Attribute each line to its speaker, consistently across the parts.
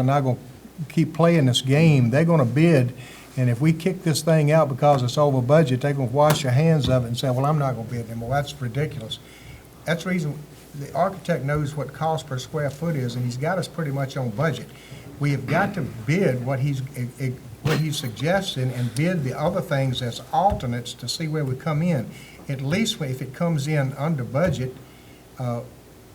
Speaker 1: are not going to keep playing this game. They're going to bid, and if we kick this thing out because it's over budget, they're going to wash their hands of it and say, well, I'm not going to bid anymore. That's ridiculous. That's the reason, the architect knows what cost per square foot is, and he's got us pretty much on budget. We have got to bid what he's, eh, eh, what he's suggesting and bid the other things as alternates to see where we come in. At least if it comes in under budget, uh,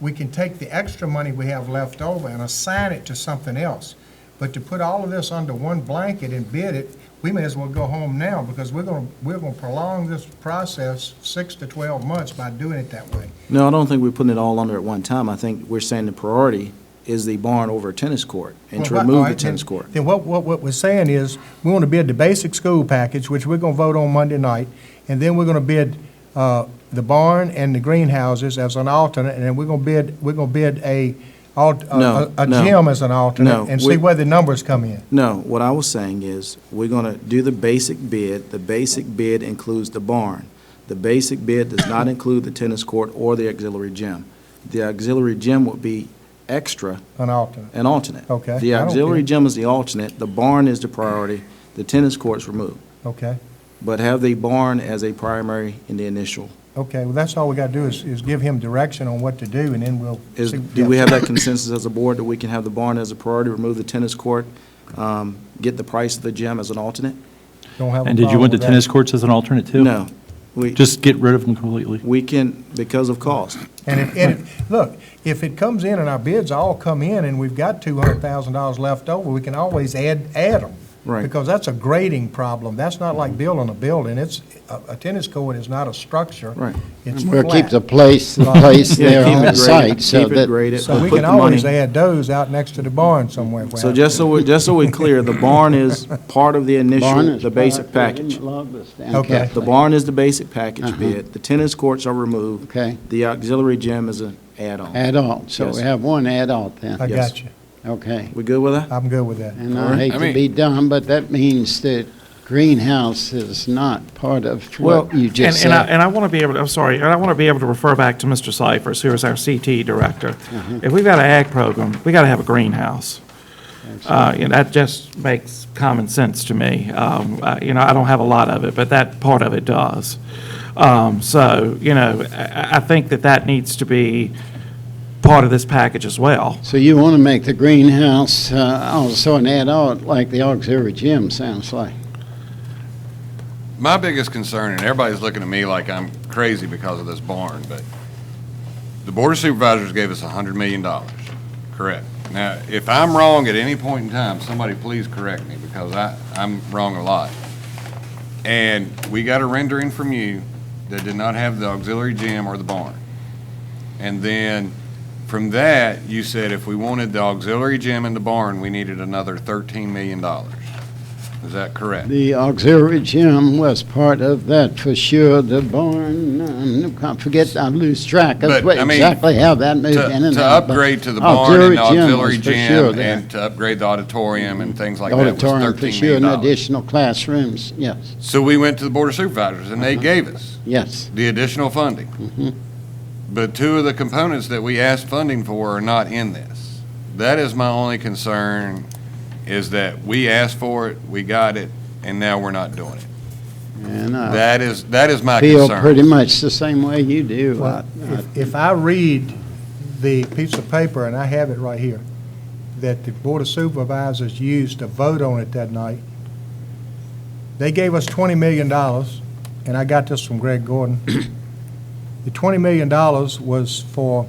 Speaker 1: we can take the extra money we have left over and assign it to something else. But to put all of this under one blanket and bid it, we may as well go home now because we're going, to we're going to prolong this process six to 12 months by doing it that way.
Speaker 2: No, I don't think we're putting it all under at one time. I think we're saying the priority is the barn over a tennis court and to
Speaker 1: Well, right, all
Speaker 2: remove the
Speaker 1: right, then-
Speaker 2: tennis court.
Speaker 1: Then what, what, what we're saying is, we want to bid the basic school package, which we're going to vote on Monday night, and then we're going to bid uh, the barn and the greenhouses as an alternate, and then we're going to bid, we're going to bid a, alt- uh,
Speaker 2: No,
Speaker 1: a a
Speaker 2: no.
Speaker 1: gym as an alternate,
Speaker 2: No,
Speaker 1: and
Speaker 2: we-
Speaker 1: see where the numbers come in.
Speaker 2: No, what I was saying is, we're gonna do the basic bid. The basic bid includes the barn. The basic bid does not include the tennis court or the auxiliary gym. The auxiliary gym would be extra
Speaker 1: An alternate.
Speaker 2: and alternate.
Speaker 1: Okay,
Speaker 2: The
Speaker 1: I don't
Speaker 2: auxiliary
Speaker 1: care.
Speaker 2: gym is the alternate, the barn is the priority, the tennis court's removed.
Speaker 1: Okay,
Speaker 2: But have the barn as a primary in the initial.
Speaker 1: okay, well, that's all we got to do is, is give him direction on what to do, and then we'll.
Speaker 2: Is,
Speaker 1: see-
Speaker 2: do we have that consensus as a board that we can have the barn as a priority, remove the tennis court, um, get the price of the gym as an alternate?
Speaker 1: Don't have a
Speaker 3: And did you
Speaker 1: problem
Speaker 3: want the
Speaker 1: with that.
Speaker 3: tennis courts as an alternate too?
Speaker 2: No. We,
Speaker 3: Just get rid of them completely.
Speaker 2: we can, because of cost.
Speaker 1: And if, and if, look, if it comes in and our bids all come in and we've got two hundred thousand dollars left over, we can always add, add them.
Speaker 2: Right.
Speaker 1: Because that's a grading problem. That's not like building a building. It's, a, a tennis court is not a structure.
Speaker 2: Right.
Speaker 1: It's
Speaker 4: Well, keep the
Speaker 1: flat.
Speaker 4: place, the
Speaker 1: Right.
Speaker 4: place
Speaker 2: Yeah,
Speaker 4: there
Speaker 2: keep
Speaker 4: on
Speaker 2: it
Speaker 4: the
Speaker 2: graded,
Speaker 4: site, so
Speaker 2: keep it
Speaker 4: that.
Speaker 2: graded,
Speaker 1: So we
Speaker 2: put
Speaker 1: can
Speaker 2: the
Speaker 1: always
Speaker 2: money-
Speaker 1: add those out next to the barn somewhere.
Speaker 2: So just so, we- just so we're clear, the barn is part of the
Speaker 4: Barn
Speaker 2: initial,
Speaker 4: is
Speaker 2: the basic
Speaker 4: part of the
Speaker 2: package.
Speaker 4: lobby stand,
Speaker 1: Okay.
Speaker 2: The
Speaker 4: Catholic.
Speaker 2: barn is the basic package
Speaker 4: Uh-huh.
Speaker 2: bid, the tennis courts are removed.
Speaker 4: Okay.
Speaker 2: The auxiliary gym is an add-on.
Speaker 4: Adult, so we
Speaker 2: Yes.
Speaker 4: have one adult then,
Speaker 1: I
Speaker 2: yes.
Speaker 1: got you.
Speaker 4: okay.
Speaker 2: We good with that?
Speaker 1: I'm good with that.
Speaker 4: And
Speaker 2: All
Speaker 4: I
Speaker 2: right.
Speaker 4: hate
Speaker 5: I
Speaker 4: to
Speaker 5: mean-
Speaker 4: be dumb, but that means that greenhouse is not part of what you just
Speaker 5: and, And I,
Speaker 4: said.
Speaker 5: and I want to be able, to I'm sorry, and I want to be able to refer back to Mr. Cyphers, who is our CT director.
Speaker 4: Mm-hmm.
Speaker 5: If we've got an ag program, we got to have a greenhouse. Uh, and that just makes common sense to me. Um, uh, you know, I don't have a lot of it, but that part of it does. Um, so, you know, I, I think that that needs to be part of this package as well.
Speaker 4: So you want to make the greenhouse uh, also an adult, like the auxiliary gym sounds like.
Speaker 6: My biggest concern, and everybody's looking at me like I'm crazy because of this barn, but the Board of Supervisors gave us hundred million dollars, correct? Now, if I'm wrong at any point in time, somebody please correct me, because I, I'm wrong a lot. And we got a rendering from you that did not have the auxiliary gym or the barn. And then, from that, you said if we wanted the auxiliary gym and the barn, we needed another thirteen million dollars. Is that correct?
Speaker 4: The auxiliary gym was part of that for sure, the barn, um, I forget, I lose track
Speaker 6: But,
Speaker 4: of what-
Speaker 6: I mean,
Speaker 4: exactly how that moved
Speaker 6: To
Speaker 4: in and
Speaker 6: to
Speaker 4: out. but Oh,
Speaker 6: upgrade to the barn and the auxiliary
Speaker 4: was for sure
Speaker 6: gym
Speaker 4: there.
Speaker 6: and to upgrade the auditorium and things like that was
Speaker 4: Auditorium for
Speaker 6: $13
Speaker 4: sure,
Speaker 6: million.
Speaker 4: and additional classrooms, yes,
Speaker 6: So we went to the Board of Supervisors and
Speaker 4: Uh-huh.
Speaker 6: they gave us
Speaker 4: yes.
Speaker 6: the additional
Speaker 4: Mm-hmm.
Speaker 6: funding. But two of the components that we asked funding for are not in this. That is my only concern, is that we asked for it, we got it, and now we're not doing it.
Speaker 4: And I
Speaker 6: That is, that is my
Speaker 4: Uh-huh. feel
Speaker 6: concern.
Speaker 4: pretty much the same way you do. I-
Speaker 1: Well, if- If I read the piece of paper, and I have it right here, that the Board of Supervisors used to vote on it that night, they gave us $20 million, and I got this from Greg Gordon. The $20 million was for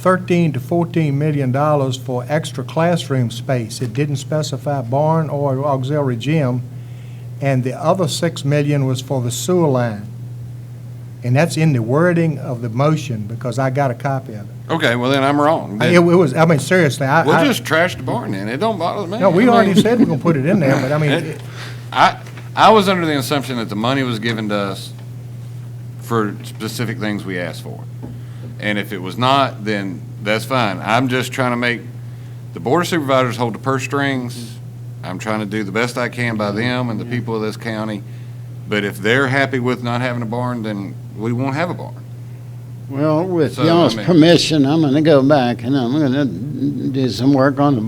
Speaker 1: 13 to 14 million dollars for extra classroom space. It didn't specify barn or auxiliary gym, and the other 6 million was for the sewer line. And that's in the wording of the motion, because I got a copy of it.
Speaker 6: Okay, well then I'm wrong.
Speaker 1: I- It was, I mean, seriously, I,
Speaker 6: We'll
Speaker 1: I-
Speaker 6: just trash the barn then. It don't bother me.
Speaker 1: no, we
Speaker 6: I
Speaker 1: already
Speaker 6: mean-
Speaker 1: said we're gonna put it in there, but I mean, it-
Speaker 6: I, I was under the assumption that the money was given to us for specific things we asked for. And if it was not, then that's fine. I'm just trying to make, the board of supervisors hold the purse strings. I'm trying to do the best I can by them and the people of this county. But if they're happy with not having a barn, then we won't have a barn.
Speaker 4: Well, with
Speaker 6: So, I
Speaker 4: y'all's
Speaker 6: mean-
Speaker 4: permission, I'm going to go back and I'm going to do some work on the